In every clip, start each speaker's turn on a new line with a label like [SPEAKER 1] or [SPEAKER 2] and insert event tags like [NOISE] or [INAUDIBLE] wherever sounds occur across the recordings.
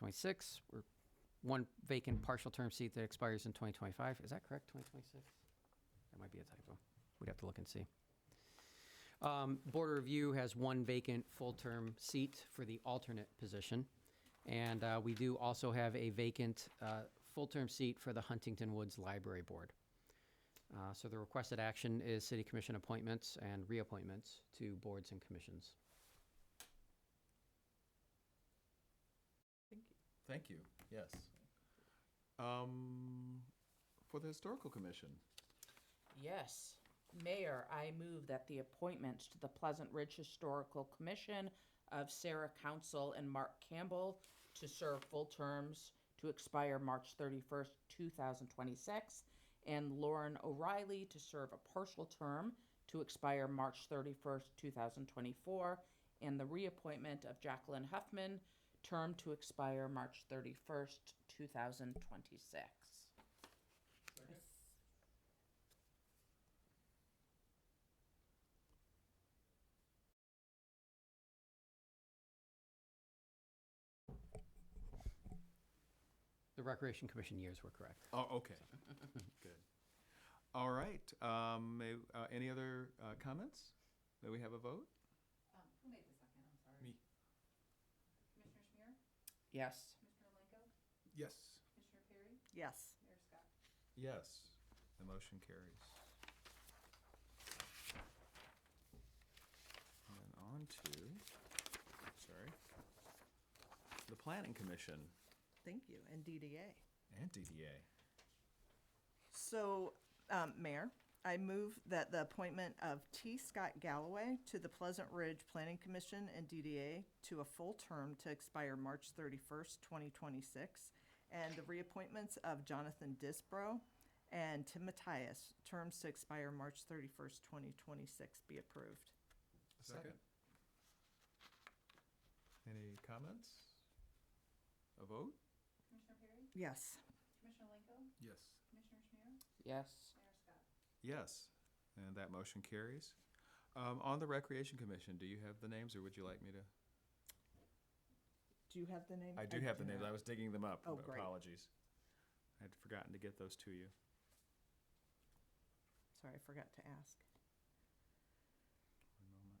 [SPEAKER 1] 2026, or one vacant partial term seat that expires in 2025. Is that correct, 2026? That might be a typo. We'd have to look and see. Um, Board of Review has one vacant full-term seat for the alternate position. And uh, we do also have a vacant uh, full-term seat for the Huntington Woods Library Board. Uh, So the requested action is city commission appointments and reappointments to boards and commissions.
[SPEAKER 2] Thank you, yes. Um, For the Historical Commission,
[SPEAKER 3] Yes. Mayor, I move that the appointments to the Pleasant Ridge Historical Commission of Sarah Council and Mark Campbell to serve full terms to expire March 31st, 2026, and Lauren O'Reilly to serve a partial term to expire March 31st, 2024, and the reappointment of Jacqueline Huffman, term to expire March 31st, 2026.
[SPEAKER 1] The Recreation Commission years were correct.
[SPEAKER 2] oh, okay, [LAUGHS] good. All right, um, may- uh, any other uh, comments? May we have a vote?
[SPEAKER 4] Um, who made the second? I'm sorry. Commissioner Schmier,
[SPEAKER 3] Yes.
[SPEAKER 4] Commissioner Lenko,
[SPEAKER 2] Yes.
[SPEAKER 4] Commissioner Perry,
[SPEAKER 5] Yes.
[SPEAKER 4] Mayor Scott.
[SPEAKER 2] Yes, the motion carries. And then on to, sorry, the Planning Commission
[SPEAKER 5] Thank you. And DDA.
[SPEAKER 2] and DDA.
[SPEAKER 5] So, um, Mayor, I move that the appointment of T. Scott Galloway to the Pleasant Ridge Planning Commission and DDA to a full term to expire March 31st, 2026, and the reappointments of Jonathan Disbro and Tim Matthias, terms to expire March 31st, 2026, be approved.
[SPEAKER 2] Second. Any comments? A vote?
[SPEAKER 4] Commissioner Perry,
[SPEAKER 5] Yes.
[SPEAKER 4] Commissioner Lenko,
[SPEAKER 2] Yes.
[SPEAKER 4] Commissioner Schmier,
[SPEAKER 3] Yes.
[SPEAKER 4] Mayor Scott.
[SPEAKER 2] Yes, and that motion carries. Um, on the Recreation Commission, do you have the names, or would you like me to?
[SPEAKER 5] Do you have the name?
[SPEAKER 2] I do have the names, I
[SPEAKER 5] not.
[SPEAKER 2] was digging them up,
[SPEAKER 5] Oh, great.
[SPEAKER 2] apologies. I had forgotten to get those to you.
[SPEAKER 5] Sorry, I forgot to ask.
[SPEAKER 2] One moment.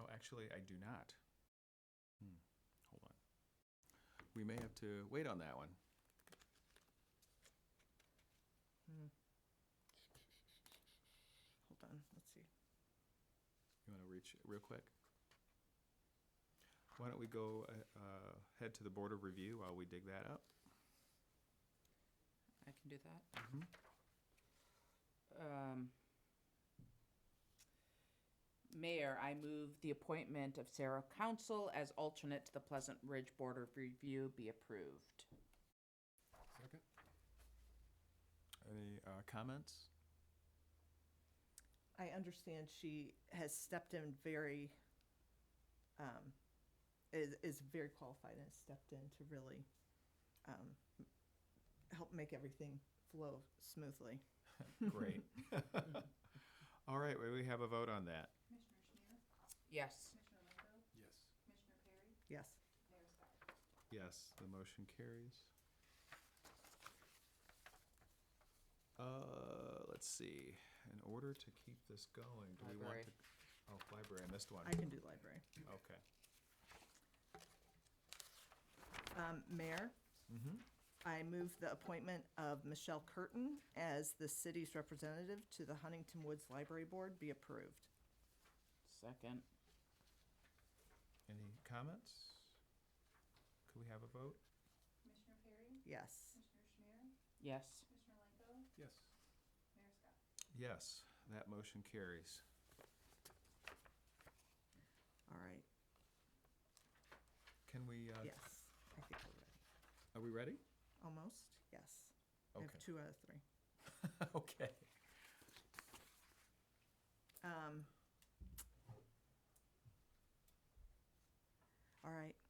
[SPEAKER 2] Oh, actually, I do not. Hmm, hold on. We may have to wait on that one.
[SPEAKER 5] Hold on, let's see.
[SPEAKER 2] You want to reach real quick? Why don't we go, uh, uh, head to the Board of Review while we dig that up?
[SPEAKER 3] I can do that. Um, Mayor, I move the appointment of Sarah Council as alternate to the Pleasant Ridge Board of Review be approved.
[SPEAKER 2] Second. Any uh, comments?
[SPEAKER 5] I understand she has stepped in very, um, is, is very qualified and has stepped in to really, um, help make everything flow smoothly.
[SPEAKER 2] Great. All right, well, we have a vote on that.
[SPEAKER 4] Commissioner Schmier,
[SPEAKER 3] Yes.
[SPEAKER 4] Commissioner Lenko,
[SPEAKER 2] Yes.
[SPEAKER 4] Commissioner Perry,
[SPEAKER 5] Yes.
[SPEAKER 4] Mayor Scott.
[SPEAKER 2] Yes, the motion carries. Uh, let's see, in order to keep this going, do we want
[SPEAKER 3] Library.
[SPEAKER 2] to? Oh, library, I missed one.
[SPEAKER 5] I can do library.
[SPEAKER 2] Okay.
[SPEAKER 5] Um, Mayor,
[SPEAKER 2] Mm-hmm.
[SPEAKER 5] I move the appointment of Michelle Curtin as the city's representative to the Huntington Woods Library Board be approved.
[SPEAKER 3] Second.
[SPEAKER 2] Any comments? Could we have a vote?
[SPEAKER 4] Commissioner Perry,
[SPEAKER 5] Yes.
[SPEAKER 4] Commissioner Schmier,
[SPEAKER 3] Yes.
[SPEAKER 4] Commissioner Lenko,
[SPEAKER 2] Yes.
[SPEAKER 4] Mayor Scott.
[SPEAKER 2] Yes, that motion carries.
[SPEAKER 5] All right.
[SPEAKER 2] Can we, uh,
[SPEAKER 5] Yes. I think we're ready.
[SPEAKER 2] are we ready?
[SPEAKER 5] Almost. Yes. I
[SPEAKER 2] Okay.
[SPEAKER 5] have two out of three.
[SPEAKER 2] [LAUGHS] Okay.
[SPEAKER 5] Um, all right,